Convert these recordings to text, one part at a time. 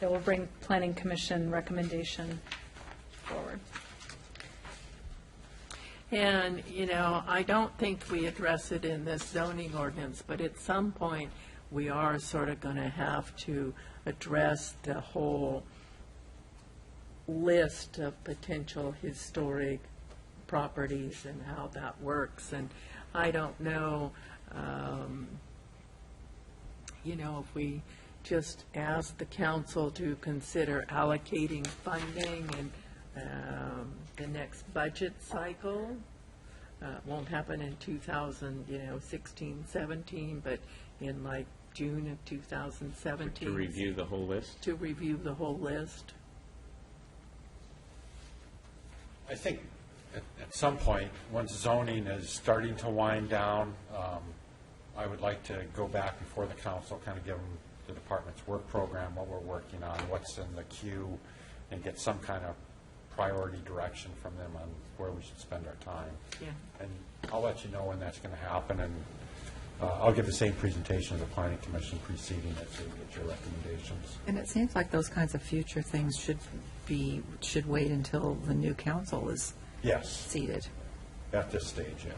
It will bring Planning Commission recommendation forward. And, you know, I don't think we address it in this zoning ordinance, but at some point, we are sort of going to have to address the whole list of potential historic properties and how that works. And I don't know, um, you know, if we just ask the council to consider allocating funding in um, the next budget cycle. Uh, It won't happen in 2000, you know, 16, 17, but in like June of 2017. To review the whole list? To review the whole list. I think at, at some point, once zoning is starting to wind down, um, I would like to go back before the council, kind of give them the department's work program, what we're working on, what's in the queue, and get some kind of priority direction from them on where we should spend our time. Yeah. And I'll let you know when that's going to happen, and uh, I'll give the same presentation as the planning commission preceding it, so you get your recommendations. And it seems like those kinds of future things should be, should wait until the new council is Yes, seated. at this stage, yeah.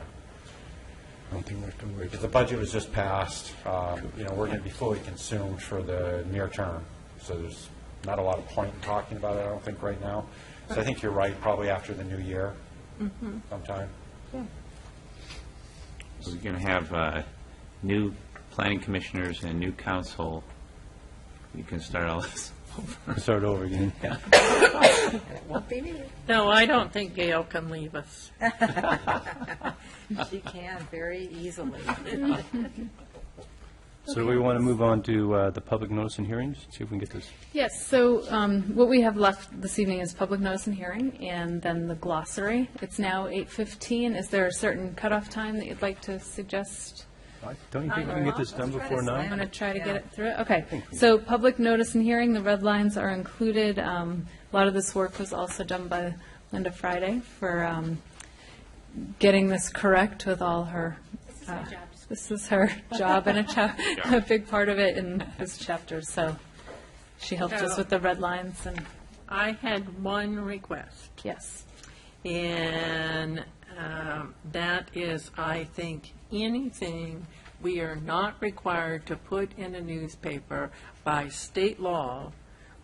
I don't think we have to worry. If the budget was just passed, um, you know, we're going to be fully consumed for the near term, so there's not a lot of point in talking about it, I don't think, right now. So I think you're right, probably after the new year sometime. So We're going to have uh, new planning commissioners and new council. We can start all this. Start over again. No, I don't think Gail can leave us. She can very easily. So do we want to move on to uh, the public notice and hearings? See if we can get this. Yes, so um, what we have left this evening is public notice and hearing, and then the glossary. It's now 8:15. Is there a certain cutoff time that you'd like to suggest? Don't you think we can get this done before I'm going nine? to try to get it through. Okay, so public notice and hearing, the red lines are included. Um, A lot of this work was also done by Linda Friday for um, getting this correct with all her. This is her job. This is her job and a chap, a big part of it in this chapter, so she helped us with the red lines and, I had one request, yes. and um, that is, I think, anything we are not required to put in a newspaper by state law,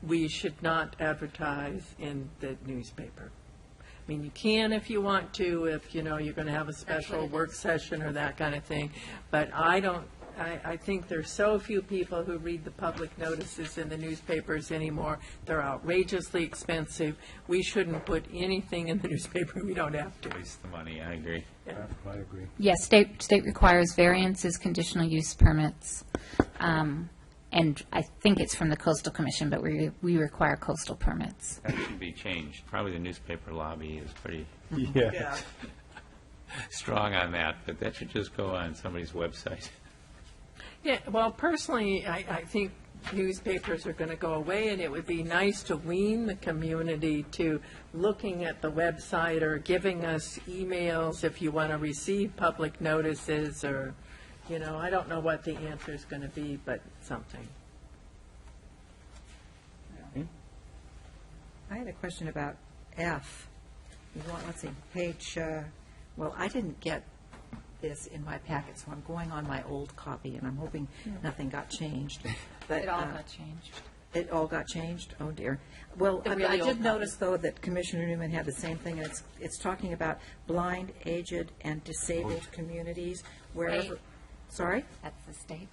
we should not advertise in the newspaper. I mean, you can if you want to, if, you know, you're going to have a special work session or that kind of thing, but I don't, I, I think there's so few people who read the public notices in the newspapers anymore. They're outrageously expensive. We shouldn't put anything in the newspaper we don't have to. Waste the money, I agree. I agree. Yes, state, state requires variances, conditional use permits, um, and I think it's from the coastal commission, but we, we require coastal permits. That should be changed. Probably the newspaper lobby is pretty Yeah. strong on that, but that should just go on somebody's website. Yeah, well, personally, I, I think newspapers are going to go away, and it would be nice to wean the community to looking at the website or giving us emails if you want to receive public notices or, you know, I don't know what the answer's going to be, but something. I had a question about F. You want- Let's see, page, uh, well, I didn't get this in my packet, so I'm going on my old copy, and I'm hoping Hmm. nothing got changed. It changed. It all got changed? Oh, dear. Well, I I did notice, though, that Commissioner Newman had the same thing, and it's, it's talking about blind, aged, and disabled communities wherever. Wait. Sorry? That's the state.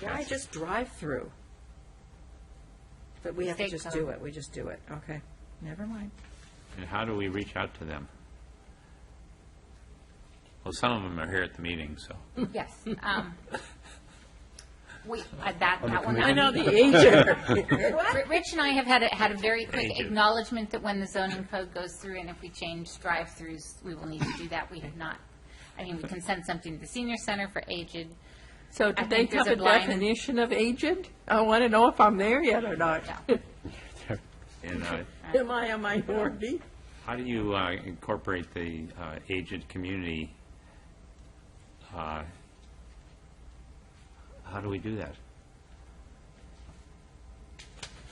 Why just drive through? But we have to State just do code. it, we just do it, okay. Never mind. And how do we reach out to them? Well, some of them are here at the meeting, so. Yes. um, We, uh, that, that one. I know the agent. R- Rich and I have had, a- had a very quick acknowledgement that when the zoning code goes through and if we change drive-throughs, we will need to do that. We have not, I mean, we can send something to the senior center for aged. So I do they think there's have a a blind- definition of agent? I want to know if I'm there yet or not. No. And uh, Am I a minority? how do you uh, incorporate the uh, aged community? uh, How do we do that?